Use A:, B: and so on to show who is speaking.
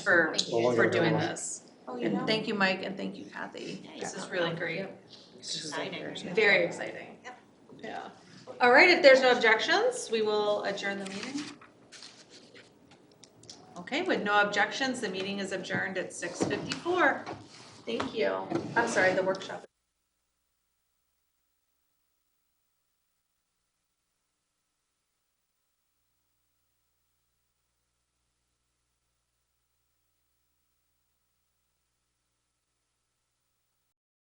A: for,
B: Well,
A: for
B: longer
A: doing
B: than one.
A: this. And thank Oh, you, Mike, and thank you, Kathy. This is really great.
C: This is like very-
A: Very exciting. Yeah. All right, if there's no objections, we will adjourn the meeting. Okay, with no objections, the meeting is adjourned at six fifty-four. Thank you. I'm sorry, the workshop.